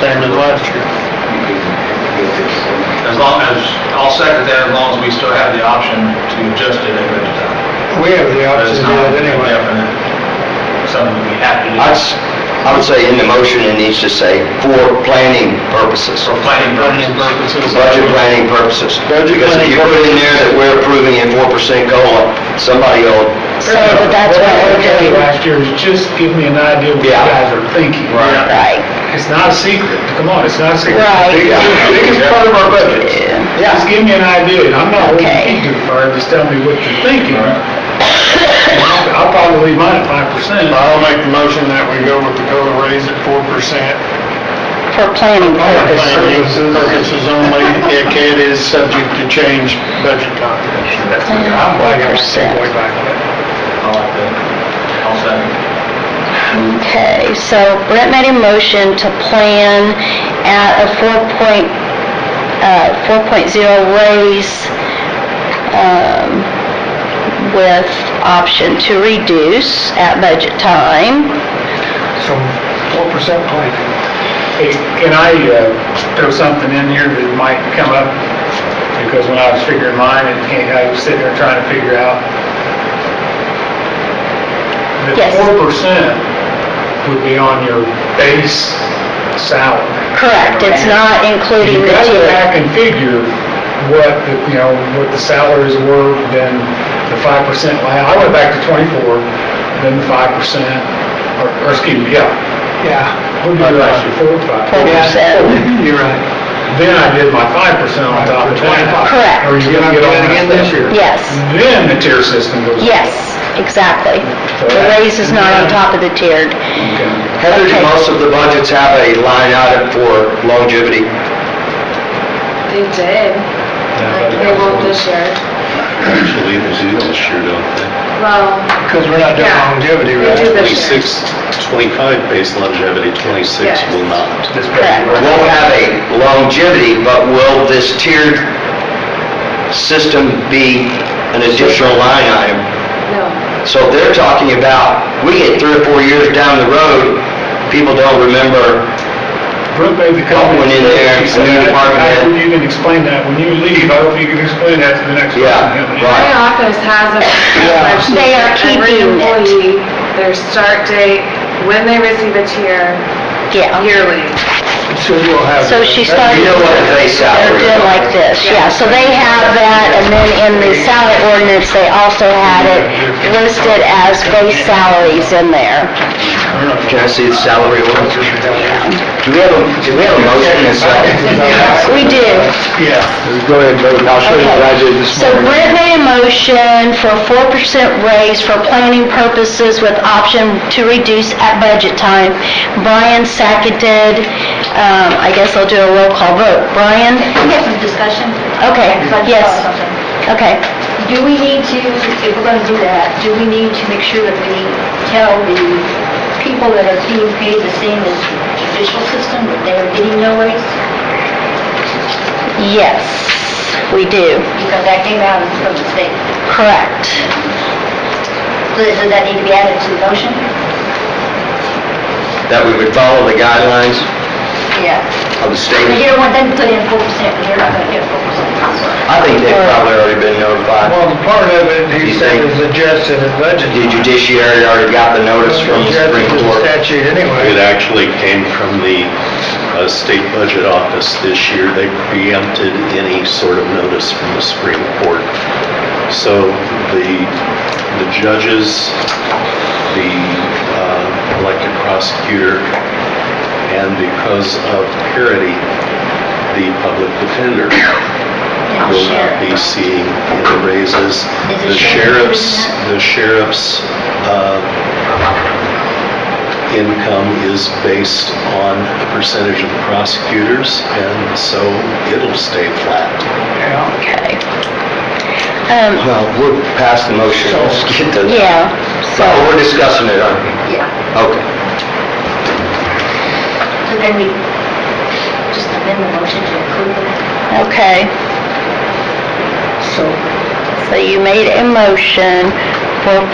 same as last year. As long as, I'll second that, as long as we still have the option to adjust it at any time. We have the But option it's to do not that anyway. definite, Something we have to do I'd s- I would say in the motion, it needs to say for planning purposes, for planning purposes. budget planning purposes. Budget Because if you planning put in there that we're approving a 4% COLA, somebody will, So that that's what we're doing. Last year is just give me an idea what you Yeah. guys are thinking. Right. Right, It's not a secret, come on, it's not a secret. Right. It's the Biggest part of our budget. yeah. Just give me an idea, I'm not holding Okay. you too far, just tell me what you're thinking. I'll probably leave mine at five percent. I'll make the motion that we go with the COLA raise at four percent. for planning purposes. Purposes only, if it is subject to change budget time. I'm glad you're Percent. way back there. I like that. I'll second. Okay, so Brett made a motion to plan at a four point, uh, four point zero raise, um, with option to reduce at budget time. So four percent plan. Hey, can I uh, throw something in here that might come up? Because when I was figuring mine, it came, I was sitting there trying to figure out. Yes. The four percent would be on your base salary. Correct, it's not including You the got to go tier. back and figure what, the you know, what the salaries were, then the five percent, I went back to twenty-four, then the five percent, or, or excuse me, yeah. Yeah. What did I do last year, four or five? Four percent. You're right. Then I did my five percent on top of twenty-five. Correct. Or you're gonna get all that. Again this year. Yes, Then the tier system goes. yes, exactly. The raise is not on top of the tiered. Okay. Heather, do Okay. most of the budgets have a line item for longevity? They did. Like, They won't this year. Actually, it was in this year, don't they? Well, Because we're not doing Yeah. longevity, they do this year. 26, 25 base longevity, 26 Yes. will not. Correct. Won't have a longevity, but will this tiered system be an additional line item? No. So if they're talking about, we get three or four years down the road, people don't remember, Brooke made the comment. Went in there, She said, new department I head. hope you can explain that when you leave, I hope you can explain that to the next person. Yeah, right. My office has a spreadsheet. They are for Every keeping it. employee, their start date, when they receive a tier Yeah. yearly. So we'll have. So she started, You know what the base they're salary is. doing like this, yeah, so they have that, and then in the salary ordinance, they also had it listed as base salaries in there. Can I see the salary ordinance? Do we have a, do we have a motion and a second? We do, Go ahead, vote. I'll show So Brent made a motion for a four percent raise for planning purposes with option to reduce at budget time. Brian seconded, um, I guess I'll do a roll call vote. Brian? We have some discussion. Okay, So I just yes. thought of something. Okay, Do we need to, if we're gonna do that, do we need to make sure that we tell the people that are being paid the same as the judicial system, that they are getting no raise? yes, we do, Because that came out from the state. correct. So does that need to be added to the motion? That we would follow the guidelines Yeah. of the But you state. don't want them to put in four percent, because they're not gonna get four percent. I think they've probably already been notified. part of it, he said, is adjusted in budget. The judiciary already got the notice from the Supreme Court. It anyway. actually came from the uh, State Budget Office this year. They preempted any sort of notice from the Supreme Court. So the, the judges, the uh, elected prosecutor, and because of parity, the public defender will not be seeing any Is raises. the The sheriff sheriff's, doing the sheriff's uh, income is based on the percentage of prosecutors, and so it'll stay flat. Okay. Um, Well, we're past the motion, let's get to, yeah, so, Well, we're discussing it, aren't we? Yeah. Okay. So then we just amend the motion to approve it. okay. So. So you made a motion for